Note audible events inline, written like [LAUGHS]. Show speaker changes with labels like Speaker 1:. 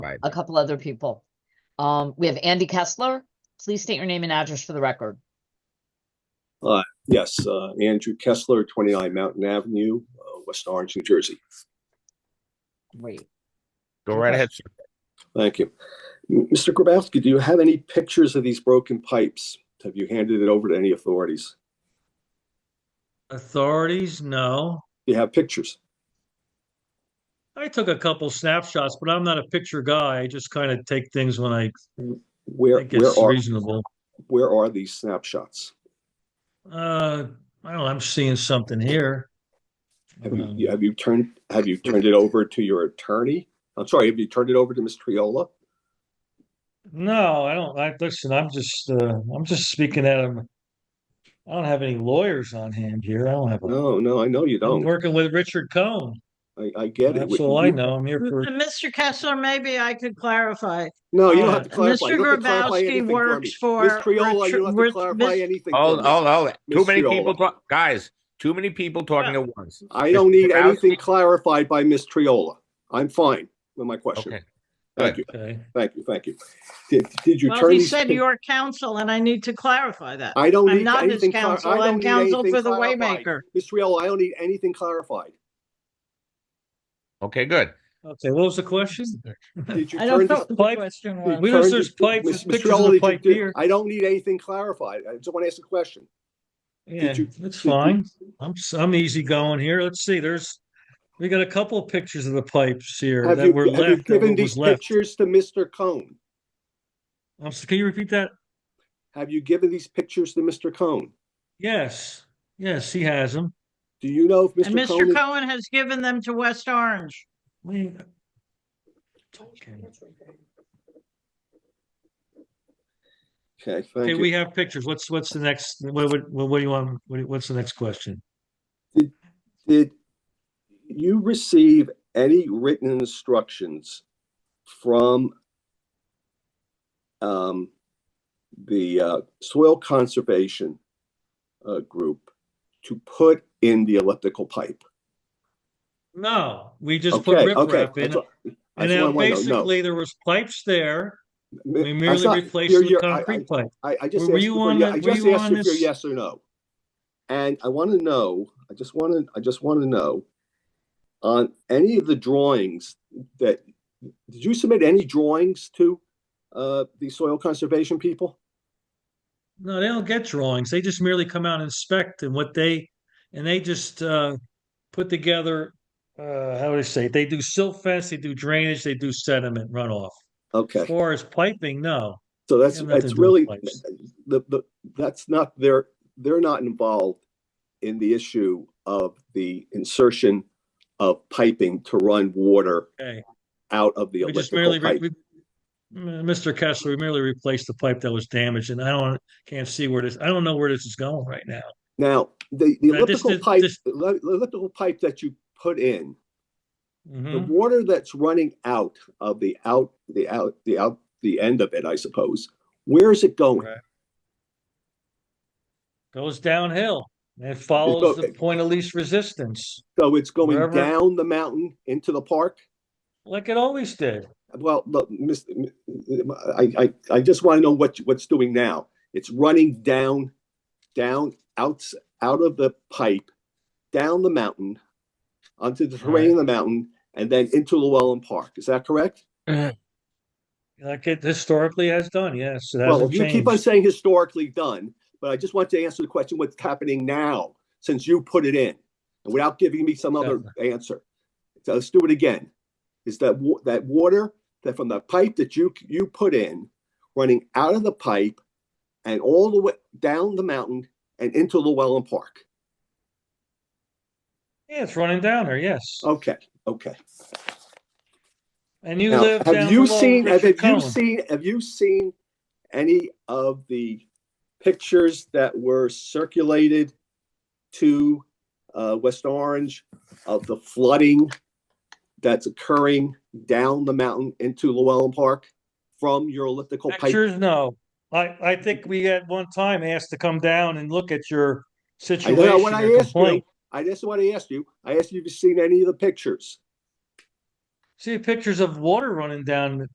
Speaker 1: Right.
Speaker 2: a couple other people. Um, we have Andy Kessler. Please state your name and address for the record.
Speaker 3: Yes, uh, Andrew Kessler, 29 Mountain Avenue, uh, West Orange, New Jersey.
Speaker 2: Great.
Speaker 1: Go right
Speaker 2: Okay.
Speaker 1: ahead, sir.
Speaker 3: Thank you. M- Mr. Grabowski, do you have any pictures of these broken pipes? Have you handed it over to any authorities?
Speaker 4: Authorities, no.
Speaker 3: Do you have pictures?
Speaker 4: I took a couple snapshots, but I'm not a picture guy. I just kind of take things when I
Speaker 3: Where,
Speaker 4: think
Speaker 3: where
Speaker 4: it's
Speaker 3: are,
Speaker 4: reasonable.
Speaker 3: where are these snapshots?
Speaker 4: Uh, I don't know, I'm seeing something here.
Speaker 3: Have you-
Speaker 4: Um,
Speaker 3: you, have you turned, have you turned it over to your attorney? I'm sorry, have you turned it over to Ms. Triola?
Speaker 4: No, I don't, I, listen, I'm just, uh, I'm just speaking out of, I don't have any lawyers on hand here. I don't have, a-
Speaker 3: No, no, I know you
Speaker 4: I'm
Speaker 3: don't.
Speaker 4: working with Richard Cohen.
Speaker 3: I, I get it.
Speaker 4: That's all I
Speaker 3: You-
Speaker 4: know. I'm
Speaker 3: [LAUGHS]
Speaker 4: here for,
Speaker 5: Mr. Kessler, maybe I could clarify.
Speaker 3: No, you don't
Speaker 4: Uh,
Speaker 3: have to clarify. You
Speaker 5: Mr.
Speaker 3: don't have to clarify
Speaker 5: Grabowski
Speaker 3: anything for me.
Speaker 5: works for
Speaker 3: Ms. Triola, you
Speaker 5: Richard-
Speaker 3: don't have to
Speaker 5: Rich-
Speaker 3: clarify
Speaker 5: Miss-
Speaker 3: anything. for
Speaker 1: Hold,
Speaker 3: me.
Speaker 1: hold, hold. Too
Speaker 3: Miss
Speaker 1: many
Speaker 3: Fiola.
Speaker 1: people talk, guys, too many people talking at once.
Speaker 3: I don't need
Speaker 1: Mr.
Speaker 3: anything
Speaker 1: Grabowski?
Speaker 3: clarified by Ms. Triola. I'm fine with my question.
Speaker 1: Okay.
Speaker 3: Thank you,
Speaker 4: okay.
Speaker 3: thank you, thank you. Did, did you
Speaker 5: Well,
Speaker 3: turn Uh,
Speaker 5: he
Speaker 3: these?
Speaker 5: said
Speaker 3: pic-
Speaker 5: your counsel, and I need to clarify that.
Speaker 3: I don't
Speaker 5: I'm
Speaker 3: need
Speaker 5: not his
Speaker 3: anything. clar-
Speaker 5: counsel,
Speaker 3: I don't
Speaker 5: I'm
Speaker 3: need
Speaker 5: counsel
Speaker 3: anything
Speaker 5: for the
Speaker 3: clarified.
Speaker 5: Waymaker.
Speaker 3: Ms. Triola, I don't need anything
Speaker 4: [LAUGHS]
Speaker 3: clarified.
Speaker 1: Okay, good.
Speaker 4: Okay, what was the question?
Speaker 3: Did you
Speaker 5: I
Speaker 3: turn
Speaker 5: don't know
Speaker 3: these?
Speaker 5: what the
Speaker 4: Pipe-
Speaker 5: question
Speaker 3: did
Speaker 5: was.
Speaker 3: you
Speaker 4: We know
Speaker 3: turn
Speaker 4: there's
Speaker 3: these-
Speaker 4: pipes,
Speaker 3: Ms.
Speaker 4: there's pictures of
Speaker 3: Triola,
Speaker 4: the
Speaker 3: did you
Speaker 4: pipe
Speaker 3: do-
Speaker 4: here.
Speaker 3: I don't need anything clarified. I just want to ask a question.
Speaker 4: Yeah,
Speaker 3: you-
Speaker 4: that's
Speaker 3: you-
Speaker 4: fine. I'm, s- I'm easy going here. Let's see, there's, we got a couple of pictures of the pipes here
Speaker 3: Have
Speaker 4: that
Speaker 3: you,
Speaker 4: were
Speaker 3: have you
Speaker 4: left, that
Speaker 3: given
Speaker 4: what
Speaker 3: these
Speaker 4: was left.
Speaker 3: pictures to Mr. Cohn?
Speaker 4: I'm, s- can you repeat that?
Speaker 3: Have you given these pictures to Mr. Cohn?
Speaker 4: Yes, yes, he has them.
Speaker 3: Do you know if
Speaker 5: And
Speaker 3: Mr. Cohn?
Speaker 5: Mr.
Speaker 3: is-
Speaker 5: Cohen has given them to West Orange.
Speaker 4: We- Okay,
Speaker 3: Okay,
Speaker 4: Okay,
Speaker 3: thank
Speaker 4: we
Speaker 3: you.
Speaker 4: have pictures. What's, what's the next, what, what, what do you want, what do you- what's the next question?
Speaker 3: Did you receive any written instructions from um, the uh, soil conservation uh, group to put in the elliptical pipe?
Speaker 4: No, we just put
Speaker 3: Okay, okay.
Speaker 4: riprap in,
Speaker 3: that's all-
Speaker 4: and
Speaker 3: that's what I
Speaker 4: now
Speaker 3: wanna know. No.
Speaker 4: basically there was pipes there.
Speaker 3: Mi-
Speaker 4: We
Speaker 3: I'm
Speaker 4: merely
Speaker 3: sorry,
Speaker 4: replaced
Speaker 3: you're-
Speaker 4: the
Speaker 3: you're- I- I-
Speaker 4: concrete pipe.
Speaker 3: I, I just
Speaker 4: Were
Speaker 3: asked
Speaker 4: you
Speaker 3: you for,
Speaker 4: on
Speaker 3: yeah,
Speaker 4: the-
Speaker 3: I
Speaker 4: were
Speaker 3: just
Speaker 4: you
Speaker 3: asked
Speaker 4: on
Speaker 3: you for your
Speaker 4: this-
Speaker 3: yes or no. And I want to know, I just want to, I just want to know on any of the drawings that, did you submit any drawings to uh, the soil conservation people?
Speaker 4: No, they don't get drawings. They just merely come out and inspect and what they, and they just uh put together, uh how do I say, it? they do silt fence, they do drainage, they do sediment runoff. As
Speaker 3: Okay,
Speaker 4: far as piping, no.
Speaker 3: so that's,
Speaker 4: They have nothing
Speaker 3: that's
Speaker 4: to do with
Speaker 3: really,
Speaker 4: pipes.
Speaker 3: the, the, that's not, they're, they're not involved in the issue of the insertion of piping to run water
Speaker 4: Okay.
Speaker 3: out of the
Speaker 4: We just merely,
Speaker 3: elliptical
Speaker 4: re-
Speaker 3: pipe.
Speaker 4: we- M- Mr. Kessler, we merely replaced the pipe that was damaged and I don't, can't see where this, I don't know where this is going right now.
Speaker 3: Now, the, the
Speaker 4: Now, this
Speaker 3: elliptical
Speaker 4: is-
Speaker 3: pipe,
Speaker 4: this-
Speaker 3: the le- elliptical pipe that you put in, the
Speaker 4: Mhm.
Speaker 3: water that's running out of the out, the out, the out, the end of it, I suppose, where is it going?
Speaker 4: Right. Goes downhill and follows the
Speaker 3: okay.
Speaker 4: point of least resistance,
Speaker 3: So it's going
Speaker 4: Wherever-
Speaker 3: down the mountain into the park?
Speaker 4: like it always did.
Speaker 3: Well, look, Miss, I, I, I just want to know what, you- what's doing now. It's running down, down, out, out of the pipe, down the mountain, onto the terrain of the mountain, and then into Llewellyn Park. Is that correct?
Speaker 4: Like it historically has done, yes. It
Speaker 3: Well,
Speaker 4: hasn't
Speaker 3: you keep on
Speaker 4: changed.
Speaker 3: saying historically done, but I just want to answer the question, what's happening now since you put it in? And without giving me some other answer. So let's do it again. Is that wa- that water that from the pipe that you you put in, running out of the pipe and all the way down the mountain and into Llewellyn Park?
Speaker 4: Yeah, it's running down there, yes.
Speaker 3: Okay, okay.
Speaker 4: And you
Speaker 3: Now,
Speaker 4: live down
Speaker 3: have you
Speaker 4: below
Speaker 3: seen, have
Speaker 4: Richard
Speaker 3: have you
Speaker 4: Cohen.
Speaker 3: seen, have you seen any of the pictures that were circulated to uh, West Orange of the flooding that's occurring down the mountain into Llewellyn Park from your elliptical pipe?
Speaker 4: Pictures, no. I, I think we at one time asked to come down and look at your
Speaker 3: I know what
Speaker 4: situation
Speaker 3: I
Speaker 4: and
Speaker 3: asked you.
Speaker 4: complaint.
Speaker 3: I just what I asked you. I asked you if you've seen any of the pictures.
Speaker 4: See pictures of water running down